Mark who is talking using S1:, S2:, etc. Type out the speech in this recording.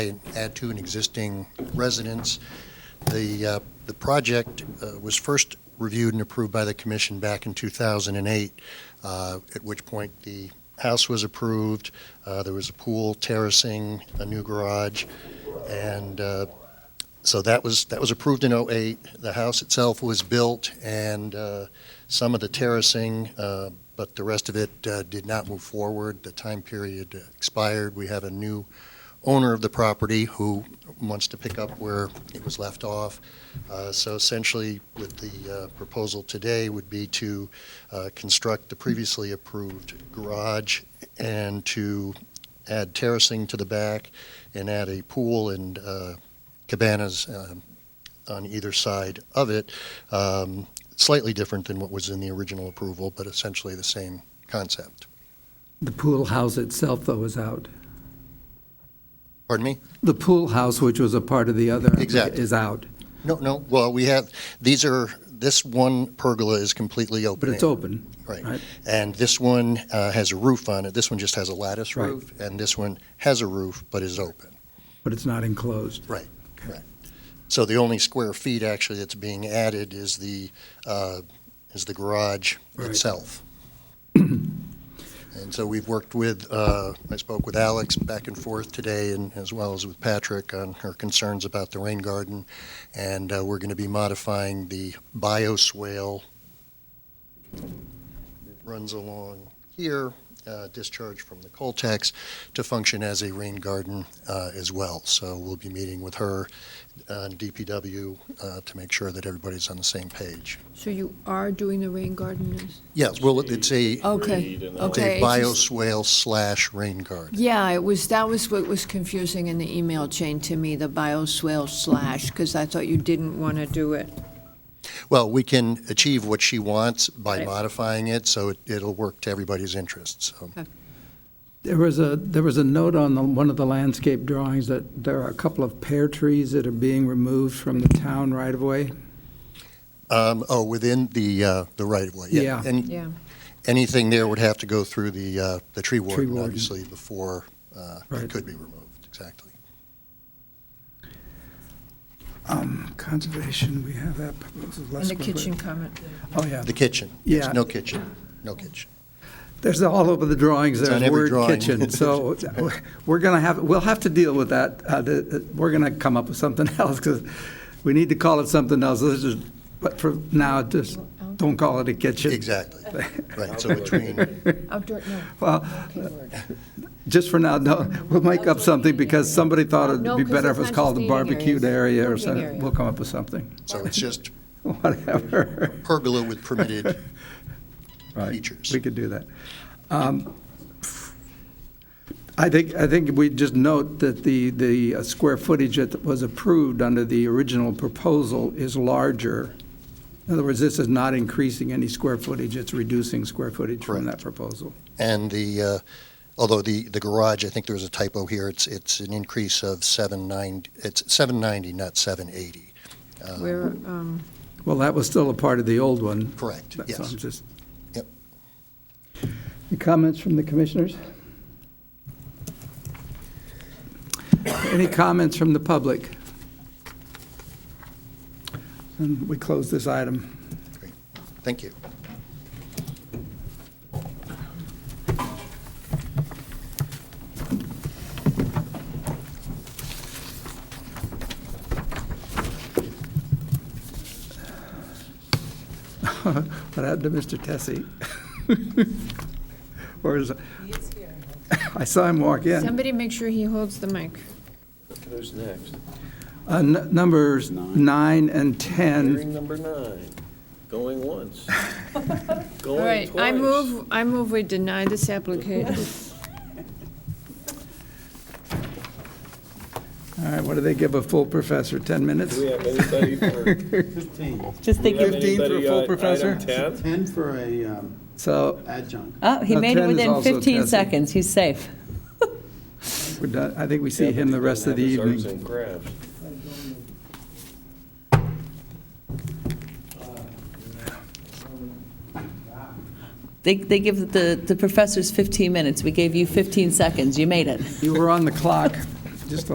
S1: add to an existing residence. The, uh, the project uh, was first reviewed and approved by the commission back in 2008, uh, at which point the house was approved, Uh, there was a pool, terracing, a new garage, and uh, so that was, that was approved in '08. The house itself was built, and uh, some of the terracing, uh, but the rest of it uh, did not move forward. The time period expired. We have a new owner of the property who wants to pick up where it was left off. Uh, So essentially, with the uh, proposal today would be to uh, construct the previously approved garage and to add terracing to the back and add a pool and uh, cabanas um, on either side of it. Um, Slightly different than what was in the original approval, but essentially the same concept.
S2: The pool house itself, though, is out.
S1: Pardon me?
S2: The pool house, which was a part of the other,
S1: Exactly.
S2: is out,
S1: No, no, well, we have, these are, this one pergola is completely open.
S2: but it's
S1: air,
S2: open.
S1: Right.
S2: right.
S1: And this one uh, has a roof on it. This one just has a lattice
S2: Right.
S1: roof. And this one has a roof but is open.
S2: But it's not enclosed.
S1: Right, correct. So the only square feet actually that's being added is the, uh, is the garage
S2: Right.
S1: itself. And so we've worked with, uh, I spoke with Alex back and forth today and as well as with Patrick on her concerns about the rain garden. And uh, we're going to be modifying the bioswale that runs along here, uh, discharge from the Coltex to function as a rain garden uh, as well. So we'll be meeting with her on DPW uh, to make sure that everybody's on the same page.
S3: So you are doing the rain garden? is-
S1: Yes, well, it's a,
S3: Okay,
S4: and
S1: it's
S3: Oh, okay.
S1: a
S3: it just-
S1: bioswale slash rain garden.
S3: Yeah, it was, that was what was confusing in the email chain to me, the bioswale slash, because I thought you didn't want to do it.
S1: Well, we can achieve what she wants by
S3: Right.
S1: modifying it, so it- it'll work to everybody's interests, so.
S2: There was a, there was a note on the, one of the landscape drawings that there are a couple of pear trees that are being removed from the town right-of-way.
S1: Um, Oh, within the, uh, the right of way, yeah.
S2: Yeah.
S1: And
S3: Yeah.
S1: anything there would have to go through the, uh, the tree warden,
S2: warden.
S1: obviously, before uh, it
S2: Right.
S1: could be removed, exactly.
S2: Um, Conservation, we have that proposal.
S3: On the kitchen comment.
S2: Oh, yeah.
S1: The kitchen, yes,
S2: Yeah.
S1: no kitchen, no kitchen.
S2: There's all over the drawings,
S1: It's on
S2: there's
S1: every
S2: word
S1: drawing.
S2: kitchen. So we're going to have, we'll have to deal with that. Uh, the- We're going to come up with something else because we need to call it something else. This is, but for now, just don't call it a kitchen.
S1: Exactly, right, so between,
S3: Outdoor, no.
S2: Well,
S3: Okay, word.
S2: just for now, no, we'll make up something because somebody thought it'd
S3: No,
S2: be
S3: 'cause
S2: better if
S3: it's
S2: it was
S3: not
S2: called a
S3: just eating area,
S2: barbecued
S3: it's
S2: area or
S3: cooking
S2: something.
S3: area.
S2: We'll come up with something,
S1: so it's just
S2: whatever.
S1: pergola with permitted
S2: Right.
S1: features.
S2: We could do that. Um, I think, I think we just note that the, the uh, square footage that was approved under the original proposal is larger. In other words, this is not increasing any square footage, it's reducing square footage from that proposal.
S1: And the, uh, although the, the garage, I think there was a typo here, it's, it's an increase of 790, it's 790, not 780.
S3: Where, um,
S2: Well, that was still a part of the old one.
S1: Correct,
S2: That's-
S1: yes.
S2: I'm just-
S1: Yep.
S2: Any Comments from the commissioners? Any comments from the public? And we close this item.
S1: Great. Thank you.
S2: What happened to Mr. Tessie? Or is,
S5: He is here.
S2: I saw him walk in.
S3: somebody make sure he holds the mic.
S4: Who's next?
S2: Uh, n- Numbers nine and 10,
S4: Hearing number nine, going once,
S3: All
S4: going
S3: right,
S4: twice.
S3: I move, I move we deny this application.
S2: all right, what do they give a full professor, 10 minutes?
S4: Do we have anybody for?
S6: Just think you're,
S2: 15 for a full professor?
S4: uh, Item 10?
S7: 10 for a um,
S2: So,
S7: adjunct.
S6: oh, he
S2: No,
S6: made
S2: 10
S6: it
S2: is
S6: within
S2: also
S6: 15
S2: testing.
S6: seconds, he's safe.
S2: we're done, uh, I think we see him the rest of the
S4: Have his arts
S2: evening.
S4: and crafts.
S6: They, they give the, the professors 15 minutes, we gave you 15 seconds, you made it.
S2: You were on the clock, just a